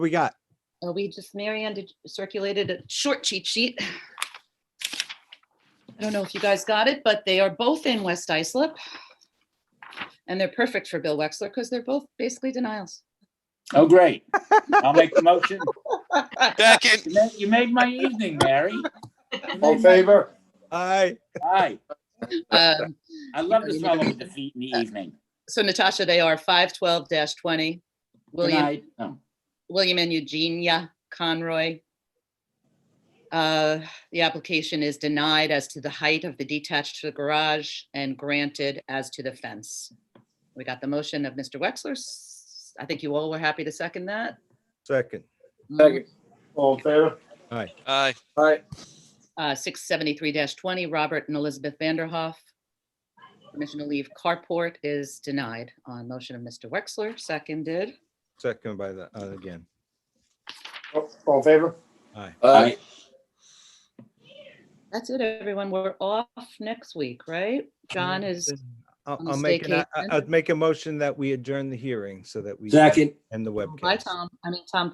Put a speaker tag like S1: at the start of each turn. S1: We got,
S2: Uh, We just, Marianne did circulated a short cheat sheet. I don't know if you guys got it, but they are both in West Islip. And they're perfect for Bill Wexler because they're both basically denials.
S3: Oh, great. I'll make the motion.
S4: Second,
S3: You ma- You made my evening, Mary.
S5: All in favor?
S1: I,
S3: Aye.
S2: Um,
S3: I love the smell of defeat in the evening.
S2: So Natasha, they are five twelve twenty,
S3: Good
S2: William,
S3: night. Oh,
S2: William and Eugenia Conroy. Uh, The application is denied as to the height of the detached to the garage and granted as to the fence. We got the motion of Mr. Wexler. S- I think you all were happy to second that.
S1: second,
S5: Second. All in favor?
S4: aye,
S5: Aye.
S2: Uh, Six seventy-three twenty, Robert and Elizabeth Vanderhoff. Permission to leave carport is denied on motion of Mr. Wexler, seconded.
S1: second by the, uh, again.
S5: All in favor?
S1: Aye.
S3: aye.
S2: That's it, everyone. We're off next week, right? John is,
S1: I'll,
S2: On
S1: I'll make, an- I-
S2: staycation.
S1: I'll make a motion that we adjourn the hearing so that we
S3: Second.
S1: end the webcast.
S2: bye, Tom. I mean, Tom,